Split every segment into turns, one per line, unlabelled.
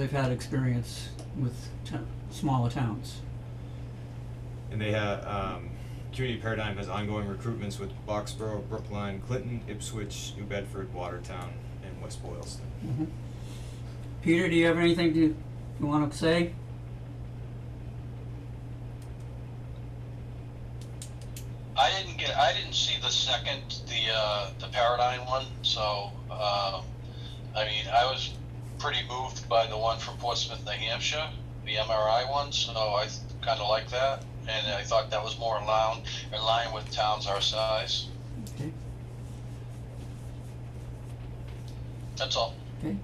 They've had experience with to- smaller towns.
And they have, um, Community Paradigm has ongoing recruitments with Boxborough, Brookline, Clinton, Ipswich, New Bedford, Watertown, and West Boylston.
Mhm. Peter, do you have anything to, you wanna say?
I didn't get, I didn't see the second, the, uh, the Paradigm one, so, um, I mean, I was pretty moved by the one from Portsmouth, New Hampshire, the MRI one, so I kinda like that, and I thought that was more in line, in line with towns our size,
Okay,
that's all.
okay.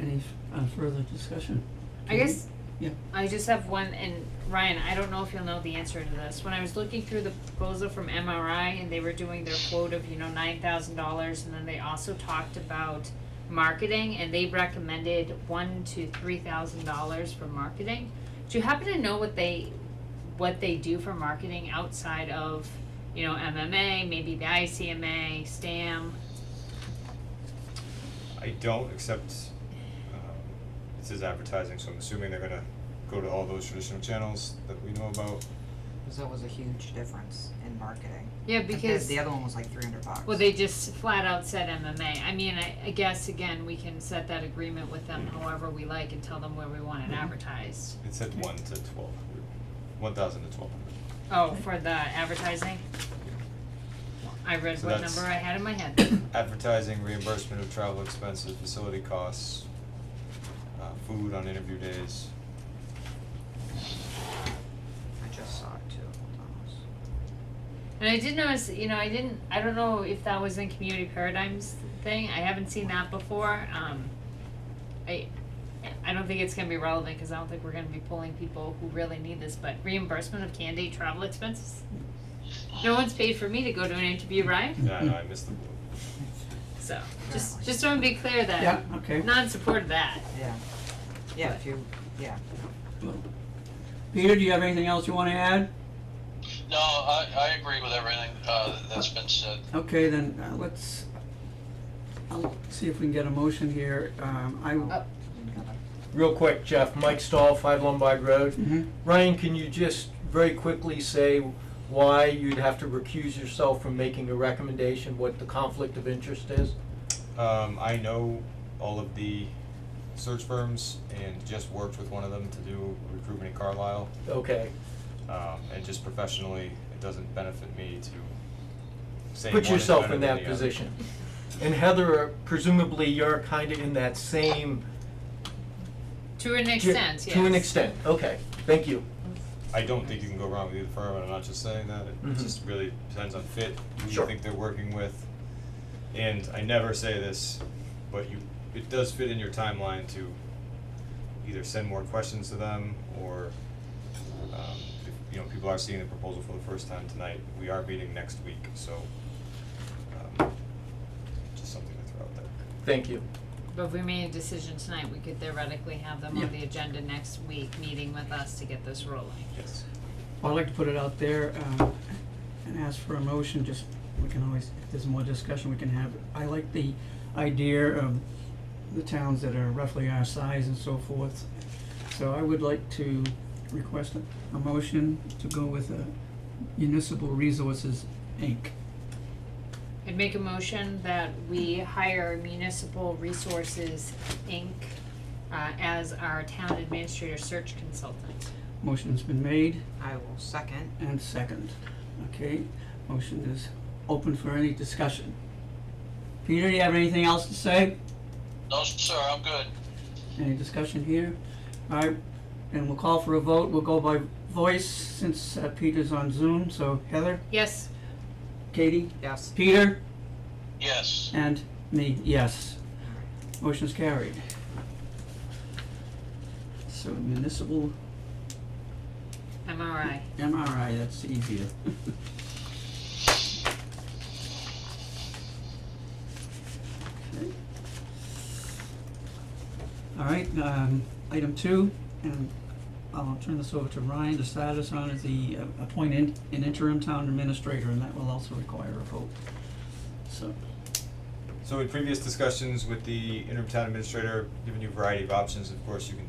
Any f- uh, further discussion?
I guess.
Yeah.
I just have one, and Ryan, I don't know if you'll know the answer to this. When I was looking through the proposal from MRI and they were doing their quote of, you know, nine thousand dollars, and then they also talked about marketing, and they recommended one to three thousand dollars for marketing. Do you happen to know what they, what they do for marketing outside of, you know, MMA, maybe the ICMA, STAM?
I don't, except, um, it says advertising, so I'm assuming they're gonna go to all those traditional channels that we know about.
Cause that was a huge difference in marketing.
Yeah,
Compared-
because.
The other one was like three hundred bucks.
Well, they just flat out said MMA. I mean, I, I guess again, we can set that agreement with them however we like and tell them where we
Mm-hmm.
want it advertised.
It said one to twelve hundred, one thousand to twelve hundred.
Oh, for the advertising? I read
So
what
that's-
number I had in my head.
Advertising, reimbursement of travel expenses, facility costs, uh, food on interview days.
I just saw it too, hold on, let's-
And I did notice, you know, I didn't, I don't know if that was in Community Paradigms thing. I haven't seen that before. Um, I, I don't think it's gonna be relevant because I don't think we're gonna be pulling people who really need this, but reimbursement of candidate travel expenses? No one's paid for me to go to an interview, right?
Yeah, I know, I missed the blue.
So, just,
Apparently.
just want to be clear that
Yeah, okay.
not support of that.
yeah. Yeah, if you, yeah.
Peter, do you have anything else you wanna add?
No, I, I agree with everything, uh, that's been said.
Okay, then, uh, let's, I'll see if we can get a motion here. Um, I,
Oh.
Real quick, Jeff, Mike Stahl, Five Lombard Road.
Mhm.
Ryan, can you just very quickly say why you'd have to recuse yourself from making a recommendation, what the conflict of interest is?
Um, I know all of the search firms and just worked with one of them to do recruitment in Carlisle.
Okay,
Um, and just professionally, it doesn't benefit me to say one
put
is
yourself
better
in
than
that
the other.
position. And Heather, presumably you're kind of in that same.
To an extent, yes.
To an extent, okay, thank you.
I don't think you can go wrong with either firm, and I'm not just saying that, it
Mhm.
just really depends on fit, who you
Sure.
think they're working with. And I never say this, but you, it does fit in your timeline to either send more questions to them, or, um, if, you know, people are seeing the proposal for the first time tonight, we are meeting next week, so, um, just something to throw out there.
Thank you.
But if we made a decision tonight, we could theoretically have them
Yeah.
on the agenda next week, meeting with us to get this rolling.
Yes.
Well, I'd like to put it out there, um, and ask for a motion, just, we can always, if there's more discussion, we can have. it. I like the idea of the towns that are roughly our size and so forth. So I would like to request a, a motion to go with, uh, Municipal Resources, Inc.
I'd make a motion that we hire Municipal Resources, Inc., uh, as our town administrator search consultant.
Motion's been made
I will second,
and second, okay? Motion is open for any discussion. Peter, do you have anything else to say?
No, sir, I'm good.
Any discussion here? Alright, and we'll call for a vote, we'll go by voice since uh, Peter's on Zoom, so Heather,
Yes,
Katie,
yes.
Peter,
Yes,
and me, yes. Motion's carried. So municipal
MRI.
MRI, that's easier. Okay. All right, um, item two, and I'll turn this over to Ryan to start us on, is the uh, appoint in- an interim town administrator, and that will also require a vote. So,
So in previous discussions with the interim town administrator, given you a variety of options, of course, you can take